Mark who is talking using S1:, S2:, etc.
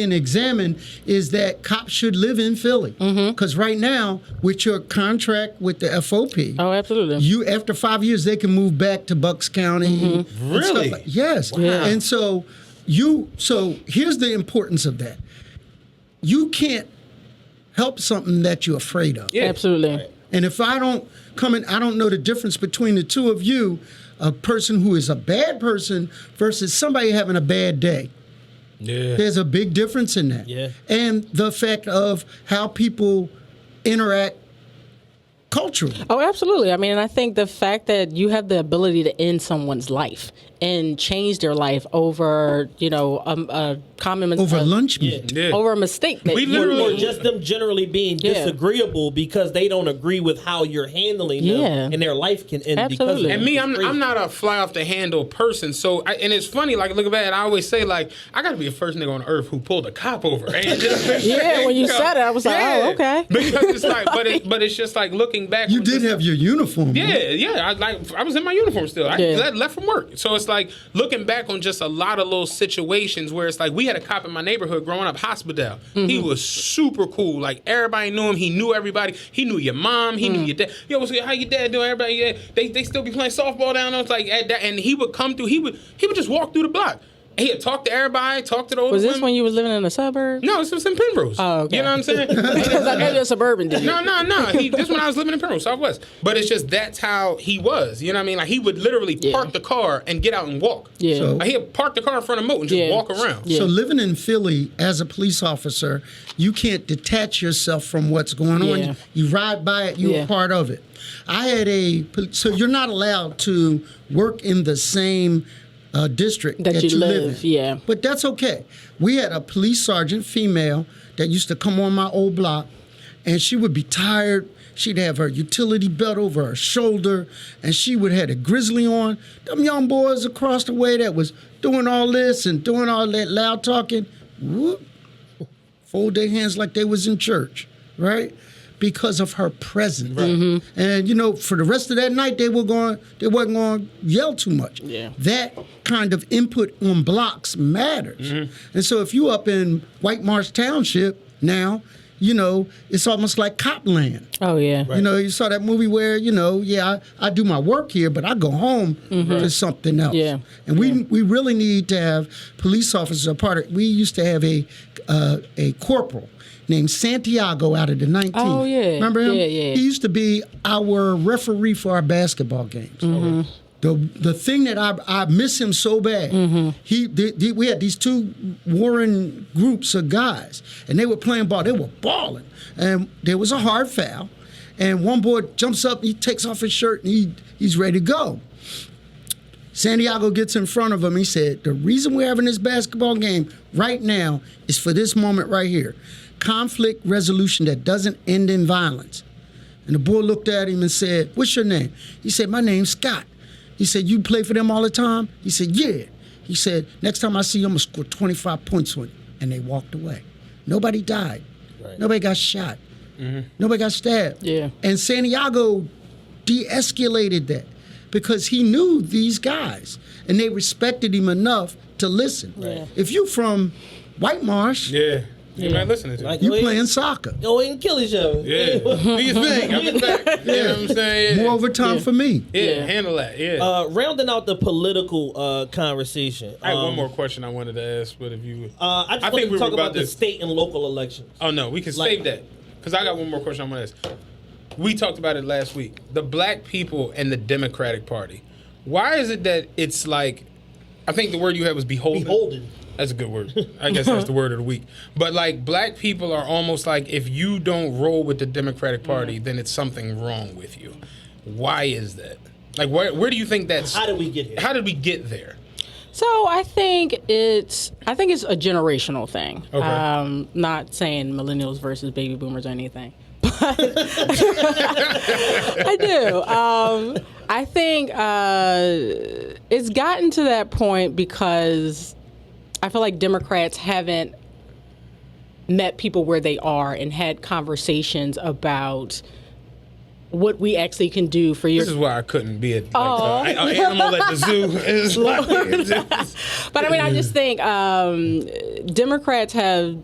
S1: and examine is that cops should live in Philly. Because right now, with your contract with the FOP,
S2: Oh, absolutely.
S1: you after five years they can move back to Bucks County. and stuff
S3: Really?
S1: like- yes.
S2: Yeah.
S1: And so you so here's the importance of that. You can't help something that you're afraid of.
S3: Yeah.
S2: Absolutely.
S1: And if I don't come in, I don't know the difference between the two of you, a person who is a bad person versus somebody having a bad day.
S3: Yeah.
S1: There's a big difference in that.
S3: Yeah.
S1: And the fact of how people interact culturally.
S2: Oh, absolutely. I mean, and I think the fact that you have the ability to end someone's life and change their life over, you know, um, a common mis-
S1: Over
S2: uh,
S1: lunch meat.
S3: Oh, Yeah.
S2: over a mistake. That
S3: We
S2: you-
S3: literally-
S4: Or just them generally being
S2: Yeah.
S4: disagreeable because they don't agree with how you're handling them,
S2: Yeah.
S4: and their life can end because of
S2: Absolutely.
S4: it.
S2: And
S3: And me, I'm, I'm not a fly off the handle person. So, I, and it's funny, like, look at that. I always say, like, I got to be the first nigga on earth who pulled a cop over. yeah,
S2: Yeah, when you said it, I was like, oh, okay.
S3: Because it's like, but, it, but it's just like looking back.
S1: You
S3: when
S1: did
S3: this-
S1: have your uniform.
S3: Yeah,
S1: right?
S3: yeah. I like I was in my uniform still. I
S2: Yeah.
S3: left, left from work, so it's like looking back on just a lot of little situations where it's like we had a cop in my neighborhood growing up, Hospital. He
S2: Mm-hmm.
S3: was super cool. Like everybody knew him. He knew everybody. He knew your mom. He
S2: Mm.
S3: knew your dad. Yo, what's good? How your dad doing? Everybody, yeah. They they still be playing softball down there. It's like at that, and he would come through. He would he would just walk through the block. He'd talk to everybody. Talk to the older
S2: Was this
S3: women.
S2: when you was living in the suburbs?
S3: No, this was in Penrose.
S2: Oh, okay.
S3: You know what I'm saying?
S2: Because I know you're a suburban dude.
S3: No, no, no. He, this when I was living in Penrose, Southwest. But it's just that's how he was. You know what I mean? Like he would literally
S2: Yeah.
S3: park the car and get out and walk.
S2: Yeah.
S1: So-
S3: Like, he'd park the car in front of Moat and just
S2: Yeah.
S3: walk around.
S2: Yeah.
S1: So living in Philly as a police officer, you can't detach yourself from what's going on.
S2: Yeah.
S1: You ride by it, you're
S2: Yeah.
S1: a part of it. I had a pol- so you're not allowed to work in the same uh, district
S2: That
S1: that,
S2: you
S1: live,
S2: live,
S1: in.
S2: yeah.
S1: But that's okay. We had a police sergeant, female, that used to come on my old block, and she would be tired. She'd have her utility belt over her shoulder, and she would have a grizzly on. Them young boys across the way that was doing all this and doing all that loud talking, whoop, fold their hands like they was in church, right? Because of her presence, and you know, for the rest of that night, they were going, they wasn't going to yell too much.
S2: Yeah.
S1: that kind of input on blocks matters. And so, if you up in White Marsh Township now, you know, it's almost like Copland.
S2: Oh, yeah.
S1: You know, you saw that movie where you know, yeah, I, I do my work here, but I go home to something else.
S2: Mm-hmm. Yeah.
S1: and we we really need to have police officers a part of. We used to have a uh, a corporal named Santiago out of the 19th.
S2: Oh, yeah.
S1: remember him?
S2: Yeah, yeah.
S1: He used to be our referee for our basketball games.
S2: Mm-hmm.
S1: The, the thing that I, I miss him so bad,
S2: Mm-hmm.
S1: he the, the- we had these two warring groups of guys, and they were playing ball. They were balling, and there was a hard foul, and one boy jumps up, he takes off his shirt, and he he's ready to go. Santiago gets in front of him. He said, The reason we're having this basketball game right now is for this moment right here conflict resolution that doesn't end in violence. And the boy looked at him and said, What's your name? He said, My name's Scott. He said, You play for them all the time? He said, Yeah. He said, Next time I see you, I'm going to score 25 points on you. And they walked away. Nobody died. Nobody got shot. Nobody got stabbed.
S2: Yeah.
S1: And Santiago de escalated that because he knew these guys and they respected him enough to listen.
S2: Right.
S1: If you from White Marsh,
S3: Yeah. You might listen to
S4: Like,
S3: it.
S1: you
S4: go ahead-
S1: playing soccer.
S4: Go ahead and kill each other.
S3: Yeah. Do you think? I'm back. You know what I'm saying? Yeah.
S1: More overtime for me.
S3: yeah.
S2: Yeah.
S3: handle that. Yeah.
S4: Uh, rounding out the political uh, conversation.
S3: I had
S4: um,
S3: one more question I wanted to ask, but if you,
S4: Uh, I just
S3: I
S4: wanted
S3: think
S4: to
S3: we were
S4: talk
S3: about
S4: about the
S3: this.
S4: state and local elections.
S3: Oh no, we can
S4: Like-
S3: save that because I got one more question I want to ask. We talked about it last week. The black people and the Democratic Party. Why is it that it's like? I think the word you had was beholden.
S4: Beholden.
S3: That's a good word. I guess that's the word of the week. But like, black people are almost like if you don't roll with the Democratic Party, then it's something wrong with you. Why is that? Like, where where do you think that's?
S4: How did we get here?
S3: How did we get there?
S2: So I think it's I think it's a generational thing.
S3: Okay.
S2: Um, not saying millennials versus baby boomers or anything, but I do. Um, I think uh, it's gotten to that point because I feel like Democrats haven't met people where they are and had conversations about what we actually can do for your
S3: This is why I couldn't be a like,
S2: Aw.
S3: uh, an animal at the zoo. It's like-
S2: But I mean, I just think um, Democrats have